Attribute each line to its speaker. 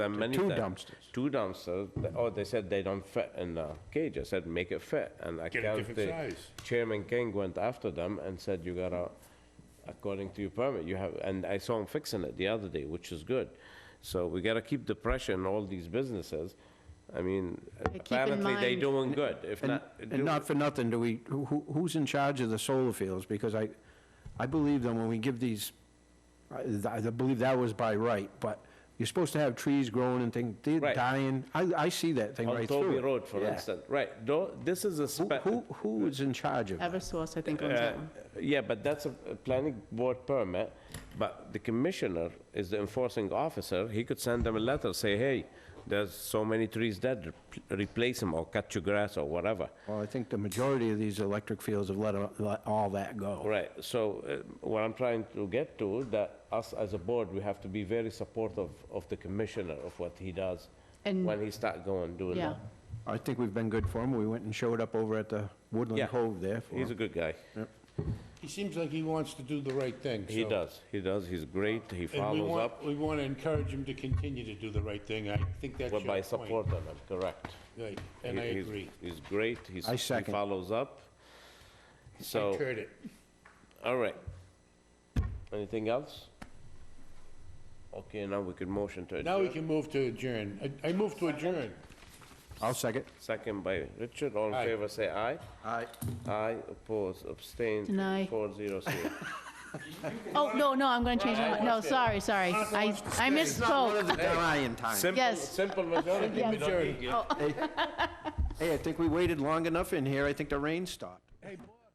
Speaker 1: There are many
Speaker 2: two
Speaker 1: times.
Speaker 2: dumpsters.
Speaker 1: Two dumpsters. Th- Oh, they said they don't fit in the cage. I said, make it fit. And I
Speaker 3: Get a
Speaker 1: can't.
Speaker 3: different
Speaker 1: the
Speaker 3: size.
Speaker 1: Chairman King went after them and said, you gotta, according to your permit, you have, and I saw him fixing it the other day, which is good. So we gotta keep the pressure on all these businesses. I mean,
Speaker 4: in
Speaker 1: apparently they
Speaker 4: mind-
Speaker 1: doing good. If
Speaker 2: And
Speaker 1: not.
Speaker 2: and
Speaker 1: do-
Speaker 2: not for nothing, do we, who, who- who's in charge of the solar fields? Because I, I believe that when we give these, I I believe that was by right, but you're supposed to have trees growing and things, they're
Speaker 1: Right.
Speaker 2: dying. I, I see that thing
Speaker 1: On
Speaker 2: right through.
Speaker 1: Toby
Speaker 2: it.
Speaker 1: Road, for
Speaker 2: Yeah.
Speaker 1: instance, right, though, this is a
Speaker 2: Who,
Speaker 1: spe-
Speaker 2: who, who is in charge of that?
Speaker 4: Eversource, I think, owns
Speaker 1: Uh,
Speaker 4: that one.
Speaker 1: Yeah, but that's a a planning board permit, but the commissioner is the enforcing officer. He could send them a letter, say, hey, there's so many trees dead, rep- replace them or cut your grass or whatever.
Speaker 2: Well, I think the majority of these electric fields have let, a- let all that go.
Speaker 1: Right, so uh, what I'm trying to get to, that us as a board, we have to be very supportive of the commissioner, of what he does,
Speaker 4: And-
Speaker 1: when he start going, doing
Speaker 4: Yeah,
Speaker 1: that.
Speaker 2: I think we've been good for them. We went and showed up over at the
Speaker 1: Yeah.
Speaker 2: Woodland Cove there for
Speaker 1: He's a
Speaker 2: 'em.
Speaker 1: good guy.
Speaker 3: He seems like he wants to do the right thing,
Speaker 1: He
Speaker 3: so-
Speaker 1: does, he does, he's great, he
Speaker 3: And we
Speaker 1: follows
Speaker 3: want,
Speaker 1: up.
Speaker 3: we want to encourage him to continue to do the right thing. I think that's your
Speaker 1: We're
Speaker 3: point.
Speaker 1: by supporting him, correct.
Speaker 3: Right, and I
Speaker 1: He- he's-
Speaker 3: agree.
Speaker 1: He's great, he's,
Speaker 2: I
Speaker 1: he
Speaker 2: second.
Speaker 1: follows up.
Speaker 3: I
Speaker 1: So,
Speaker 3: heard it.
Speaker 1: all right. Anything else? Okay, now we can motion to
Speaker 3: Now we
Speaker 1: adjourn.
Speaker 3: can move to adjourn. I- I move to adjourn.
Speaker 2: I'll second.
Speaker 1: Second by Richard, all in
Speaker 3: Aye.
Speaker 1: favor, say aye.
Speaker 2: Aye.
Speaker 1: Aye, oppose, abstain.
Speaker 4: Deny.
Speaker 1: Four zero zero.
Speaker 4: oh, no, no, I'm gonna change my, mind. no, sorry, sorry, I, I misspoke.
Speaker 2: Ryan time.
Speaker 1: Simple-
Speaker 4: Yes.
Speaker 1: Simple majority.
Speaker 4: Yes.
Speaker 1: we don't need-
Speaker 2: Hey, I think we waited long enough in here. I think the rain stopped.